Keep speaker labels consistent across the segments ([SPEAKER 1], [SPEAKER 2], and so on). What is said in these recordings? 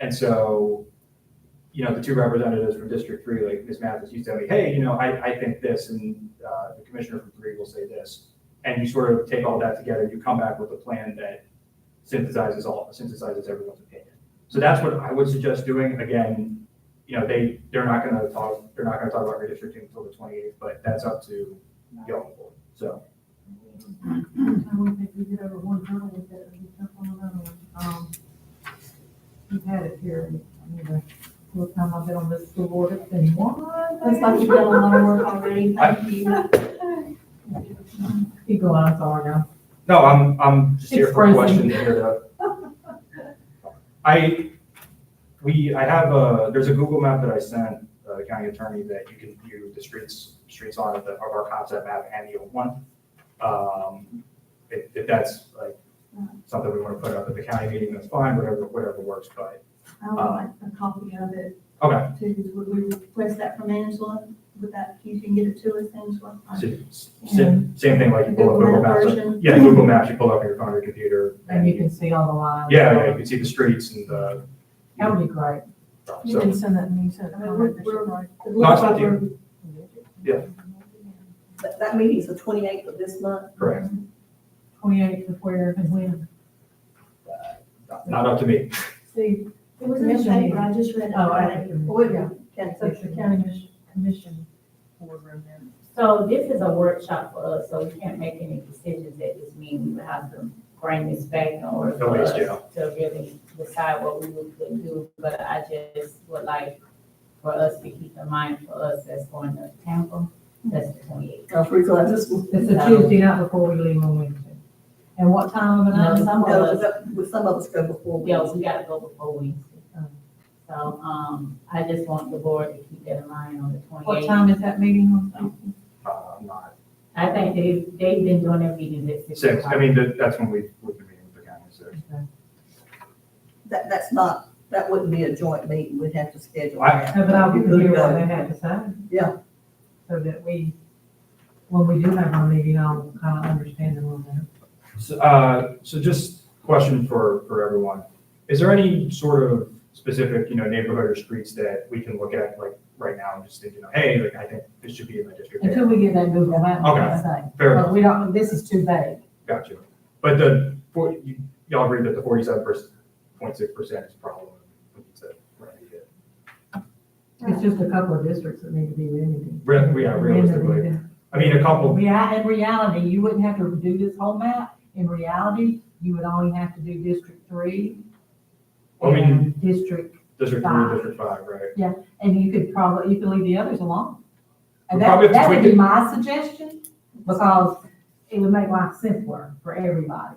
[SPEAKER 1] And so, you know, the two representatives from District Three, like Ms. Mathis, you tell me, hey, you know, I, I think this, and uh, the commissioner from three will say this. And you sort of take all that together, you come back with a plan that synthesizes all, synthesizes everyone's opinion. So that's what I would suggest doing. Again, you know, they, they're not gonna talk, they're not gonna talk about redistricting until the twenty-eighth, but that's up to y'all. So,
[SPEAKER 2] I wouldn't think we did ever one time with that, we took on another one. Um, We've had it here, and, I mean, the whole time I've been on this school board, it's been one.
[SPEAKER 3] Looks like you've done a lot of work already, thank you.
[SPEAKER 2] Keep going, I'm sorry now.
[SPEAKER 1] no, I'm, I'm just here for a
[SPEAKER 2] Expressing.
[SPEAKER 1] question here to. I, we, I have a, there's a Google map that I sent, uh, the county attorney that you can view the streets, streets on of the, of our concept map and the old one. Um, if, if that's like something we wanna put up at the county meeting, that's fine, whatever, whatever works, but,
[SPEAKER 3] I would like a copy of it
[SPEAKER 1] Uh, okay.
[SPEAKER 3] too. Would we request that from Angela? Would that, you can get it to us, Angela?
[SPEAKER 1] Same same thing like you pull up Google
[SPEAKER 3] Google Map
[SPEAKER 1] Maps.
[SPEAKER 3] version.
[SPEAKER 1] Yeah, Google Maps, you pull up your phone or your computer.
[SPEAKER 2] And you can see all the lines.
[SPEAKER 1] Yeah, yeah, you can see the streets and the.
[SPEAKER 2] That would be great.
[SPEAKER 4] You
[SPEAKER 1] So,
[SPEAKER 4] can send that to me, so.
[SPEAKER 3] I mean, we're- we're- It
[SPEAKER 1] No, it's
[SPEAKER 3] looks
[SPEAKER 1] not
[SPEAKER 3] like
[SPEAKER 1] you.
[SPEAKER 3] we're-
[SPEAKER 5] That, that meeting's the twenty-eighth of this month.
[SPEAKER 1] correct.
[SPEAKER 2] Twenty-eight to where and when.
[SPEAKER 1] Not up to me.
[SPEAKER 2] See,
[SPEAKER 3] It was in the
[SPEAKER 2] Commission
[SPEAKER 3] paper, I just read it.
[SPEAKER 2] Oh, I-
[SPEAKER 3] today. Or it-
[SPEAKER 2] yeah.
[SPEAKER 3] Okay,
[SPEAKER 2] so
[SPEAKER 3] so-
[SPEAKER 2] it's the county mis- commission boardroom then.
[SPEAKER 6] So this is a workshop for us, so we can't make any decisions at this meeting. We would have to bring this back in order for
[SPEAKER 1] Nobody's
[SPEAKER 6] us
[SPEAKER 1] jail.
[SPEAKER 6] to really decide what we would could do. But I just would like for us to keep in mind for us that's going to Tampa, that's the twenty-eighth.
[SPEAKER 5] Cause we're glad this was.
[SPEAKER 2] It's a Tuesday night before we leave on Wednesday. And what time of the
[SPEAKER 6] No,
[SPEAKER 2] night?
[SPEAKER 6] some of
[SPEAKER 5] No,
[SPEAKER 6] us,
[SPEAKER 5] but with some of us go before. we-
[SPEAKER 6] yeah, we gotta go before Wednesday. So, um, I just want the board to keep that in mind on the
[SPEAKER 2] What
[SPEAKER 6] twenty-eighth.
[SPEAKER 2] time is that meeting on?
[SPEAKER 1] Uh, I'm not.
[SPEAKER 6] I think they, they've been doing their meetings at six
[SPEAKER 1] Six,
[SPEAKER 6] o'clock.
[SPEAKER 1] I mean, that, that's when we, we've been meeting with the county, so.
[SPEAKER 2] Uh,
[SPEAKER 5] That, that's not, that wouldn't be a joint meeting, we'd have to schedule.
[SPEAKER 1] I-
[SPEAKER 5] that.
[SPEAKER 2] No, but I will hear what they have to say.
[SPEAKER 5] Yeah.
[SPEAKER 2] So that we, when we do have our meeting, I'll kind of understand a little bit.
[SPEAKER 1] So, uh, so just question for, for everyone. Is there any sort of specific, you know, neighborhood or streets that we can look at like right now and just think, you know, hey, like I think this should be in my district.
[SPEAKER 2] Until we get that Google map, like I say.
[SPEAKER 1] Fair enough.
[SPEAKER 2] But we don't, this is too vague.
[SPEAKER 1] Got you. But the, for- you- y'all agree that the forty-seven percent, point six percent is a problem. We need to remedy it.
[SPEAKER 2] It's just a couple of districts that need to be limited.
[SPEAKER 1] Re- yeah, realistically. I mean, a couple,
[SPEAKER 2] Yeah, in reality, you wouldn't have to do this whole map. In reality, you would only have to do District Three.
[SPEAKER 1] I mean-
[SPEAKER 2] and District,
[SPEAKER 1] District Three, District Five, right?
[SPEAKER 2] and you could probably, you could leave the others alone. And
[SPEAKER 1] We probably
[SPEAKER 2] that,
[SPEAKER 1] have to
[SPEAKER 2] that would
[SPEAKER 1] tweak
[SPEAKER 2] be my suggestion, because it would make life simpler for everybody.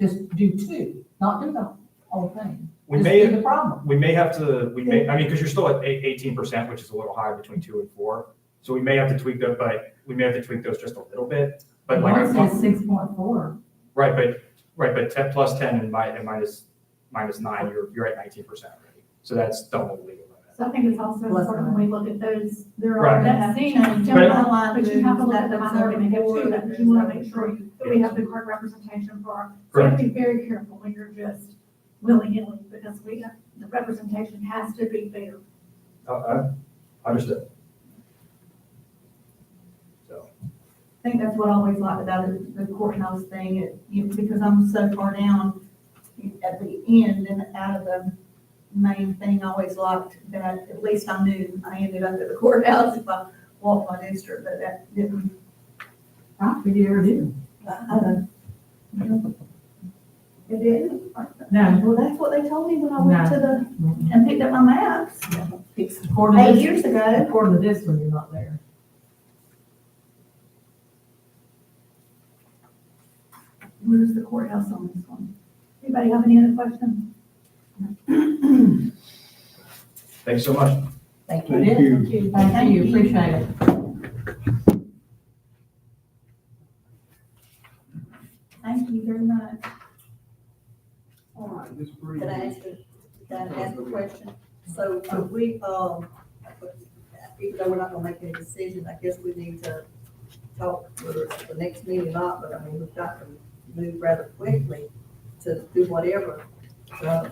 [SPEAKER 2] Just do two, not do the whole thing.
[SPEAKER 1] We
[SPEAKER 2] Just
[SPEAKER 1] may,
[SPEAKER 2] do the problem.
[SPEAKER 1] we may have to, we may, I mean, because you're still at eighteen percent, which is a little high between two and four. So we may have to tweak that, but we may have to tweak those just a little bit. But like,
[SPEAKER 2] Mine
[SPEAKER 1] I'm-
[SPEAKER 2] says six point four.
[SPEAKER 1] right, but, right, but ten, plus ten and mi- and minus, minus nine, you're, you're at nineteen percent already. So that's double the legal limit.
[SPEAKER 3] So I think it's also
[SPEAKER 5] Bless
[SPEAKER 3] important we look at those, there
[SPEAKER 1] Right.
[SPEAKER 3] are, that seem,
[SPEAKER 1] But-
[SPEAKER 3] jump line,
[SPEAKER 4] but you have to look at
[SPEAKER 3] that
[SPEAKER 4] the
[SPEAKER 3] that's already
[SPEAKER 4] minority
[SPEAKER 3] too,
[SPEAKER 4] too,
[SPEAKER 3] that you want to make sure that we have the correct representation for our. So you have
[SPEAKER 1] Correct.
[SPEAKER 3] to be very careful when you're just willy-nilly, because we have, the representation has to be fair.
[SPEAKER 1] Uh, I understood. So,
[SPEAKER 3] I think that's what I always liked about it, the courthouse thing, it, you know, because I'm so far down at the end and out of the main thing, I always liked that at least I knew I ended up at the courthouse if I walked my district, but that didn't,
[SPEAKER 2] I figure it is.
[SPEAKER 3] I don't. you know, It didn't.
[SPEAKER 2] No.
[SPEAKER 3] Well, that's what they told me when I went to the,
[SPEAKER 2] Mhm.
[SPEAKER 3] and picked up my maps
[SPEAKER 5] It's-
[SPEAKER 2] According to
[SPEAKER 3] eight
[SPEAKER 2] this,
[SPEAKER 3] years ago.
[SPEAKER 2] according to this one, you're not there.
[SPEAKER 3] Where's the courthouse on this one? Anybody have any other questions?
[SPEAKER 1] thanks so much.
[SPEAKER 5] Thank you.
[SPEAKER 2] Thank you. Thank you, appreciate it.
[SPEAKER 3] Thank you very much.
[SPEAKER 5] All right.
[SPEAKER 4] Ms. Breeze,
[SPEAKER 5] Can I ask, a- can I ask a question? So are we, um, even though we're not gonna make any decision, I guess we need to talk whether it's the next meeting or not, but I mean, we've got to move rather quickly to do whatever. So